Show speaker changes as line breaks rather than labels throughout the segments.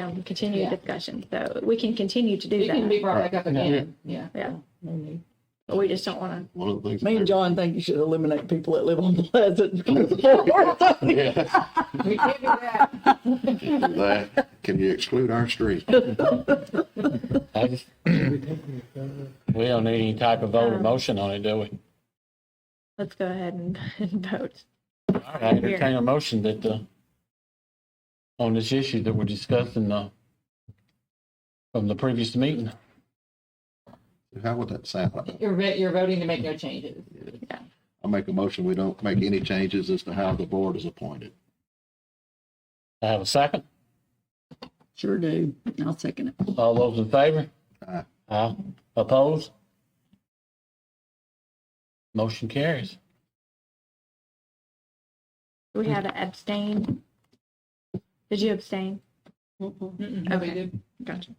item, continue discussion. So we can continue to do
It can be
that.
brought back up again, yeah.
Yeah,
No need.
but we just don't want
One of the things.
Me and John think you should eliminate people that live on Pleasant. Well,
Yeah,
We can't do that.
that, can you exclude our street?
I just- We don't need any type of vote or motion on it, do we?
to, let's go ahead and and vote.
All right, I entertain a motion that, uh, on this issue that we're discussing, uh, from the previous meeting.
How would that sound?
You're, vo- you're voting to make no changes.
I make a motion, we don't make any changes as to how the board is appointed.
I have a second.
Sure do. I'll second it.
All those in favor?
Aye.
Aye. Opposed? Motion carries.
We had to abstain. Did you abstain?
Mm-mm, we
Okay.
did.
Gotcha.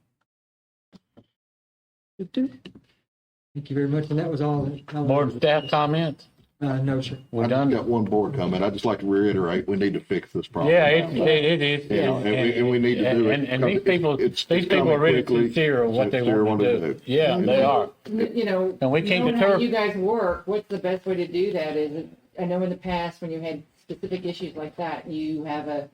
Thank you very much, and that was all. that- all-
Board staff comments?
Uh, no, sir.
We
I've
done?
Got one board comment. I'd just like to reiterate, we need to fix this problem.
Yeah, it, it it is.
Yeah, and we- and we need to do it.
And, and these
It's-
people,
it's-
these
it's
people are really
coming quickly.
sincere of what they
Sincere
want
wanna
to
do.
do. Yeah, they are.
You know.
And we
you
came
know
to
how
term-
You guys work, what's the best way to do that is, it- I know in the past, when you had specific issues like that, you have a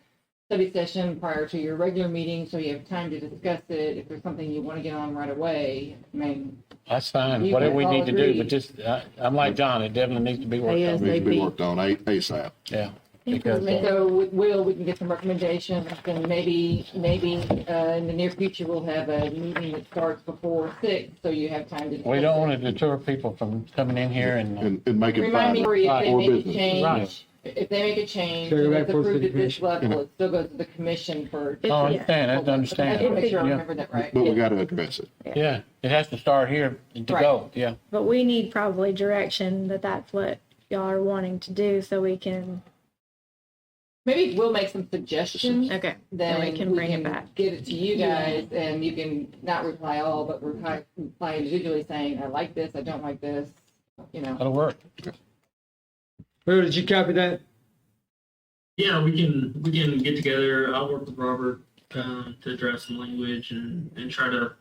study session prior to your regular meeting, so you have time to discuss it, if there's something you want to get on right away, I mean,
That's fine,
You
whatever
guys
we
all
need to do,
agree.
but just, I, I'm like John, it definitely needs to be worked
Yes.
on,
Needs to be worked on A- ASAP.
yeah.
Thank
Because,
And
uh,
so with Will, we can get some recommendations, and maybe, maybe uh, in the near future, we'll have a meeting that starts before six, so you have time to.
we
discuss
don't
it.
want to deter people from coming in here and,
And, and make it
Remind me,
final.
Maria, if they
Or
make a
business.
change,
Right.
if they make a change,
Carry
and
back
it's
forth to
approved
the
at this
commission.
level, it still goes to the commission for.
It-
Oh, I understand, that's
I want to make sure I
understandable,
remember that right.
But we got to address it.
yeah, yeah, it has to start here to
Right.
go, yeah.
But we need probably direction that that's what y'all are wanting to do so we can,
Maybe we'll make some suggestions.
okay,
Then
then we can bring it back.
Get it to you guys and you can not reply all, but reply reply individually saying, I like this, I don't like this, you know.
That'll work.
Who did you copy that?
Yeah, we can we can get together. I'll work with Robert um, to draft some language and and try to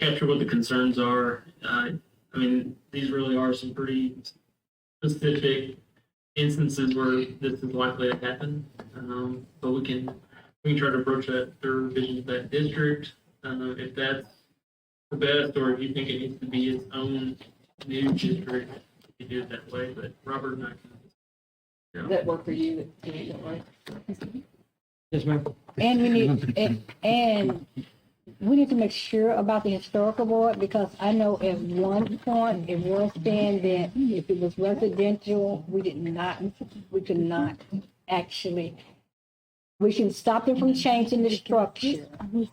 capture what the concerns are. Uh, I mean, these really are some pretty specific instances where this is likely to happen. Um, but we can we can try to broach that through vision of that district. Uh, if that's the best, or if you think it needs to be its own new district, you can do it that way. But Robert and I can
Does that work for you? Do you think that works?
Yes, ma'am.
And we need, and, and we need to make sure about the historical board, because I know at one point, it was saying that if it was residential, we did not, we could not actually, we can stop it from changing the structure.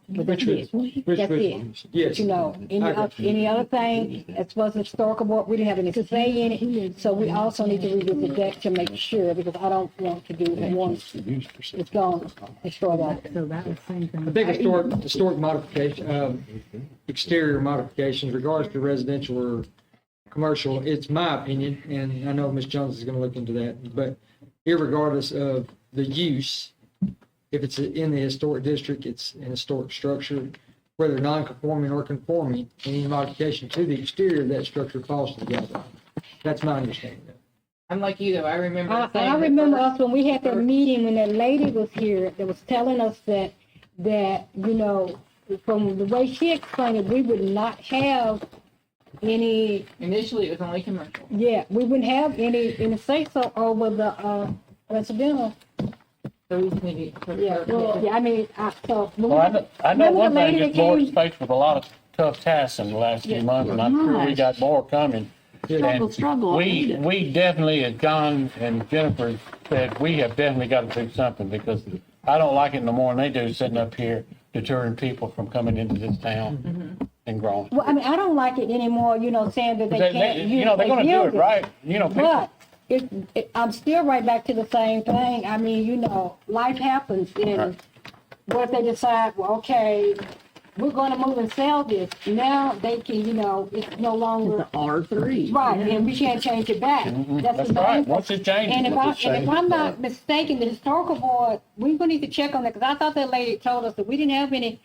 But that's it.
Which- which
That's it.
one? Yes.
You know, any,
Mm-hmm. I
oth-
got you. Mm-hmm.
any other thing, as far as the historical board, we didn't have any say in it, so we also need to revisit that to make sure, because I don't want to do one, it's gone, destroy that.
I think historic, historic modification, um, exterior modifications regards to residential or commercial, it's my opinion, and I know Ms. Jones is gonna look into that, but irregardless of the use, if it's in the historic district, it's an historic structure, whether non-conforming or conforming, any modification to the exterior of that structure falls to the guideline. That's my understanding.
I'm like you though, I remember.
I,
saying
I
the
remember
first-
us when we had that meeting, when that lady was here, that was telling us that, that, you know, from the way she explained it, we would not have any,
Initially, it was only commercial.
yeah, we wouldn't have any, any say-so over the, uh, residential.
So we just need to.
Yeah, well, yeah, I mean, I, so. when we
Well, I
had
know,
the-
I know
remember the
one thing,
lady
this
that came-
board's faced with a lot of tough tasks in the last few months, and I'm sure we got more coming. And We, we definitely, as John and Jennifer said, we have definitely got to do something, because I don't like it no more than they do, sitting up here deterring people from coming into this town and growing.
Mm-hmm. Well, I mean, I don't like it anymore, you know, saying that they
They-
can't
they-
use.
You know, they're gonna do
use
it right, you know, people,
But it, it, I'm still right back to the same thing. I mean, you know, life happens and what if they decide, well, okay, we're gonna move and sell this. Now they can, you know, it's no longer,
R three.
right, and we can't change it back.
Mm-hmm. that's
the
right,
main thing.
once it changes.
And if
once
I,
it
and if I'm not mistaken, the historical board, we're gonna need to check on that, because I thought that lady told us that we didn't have any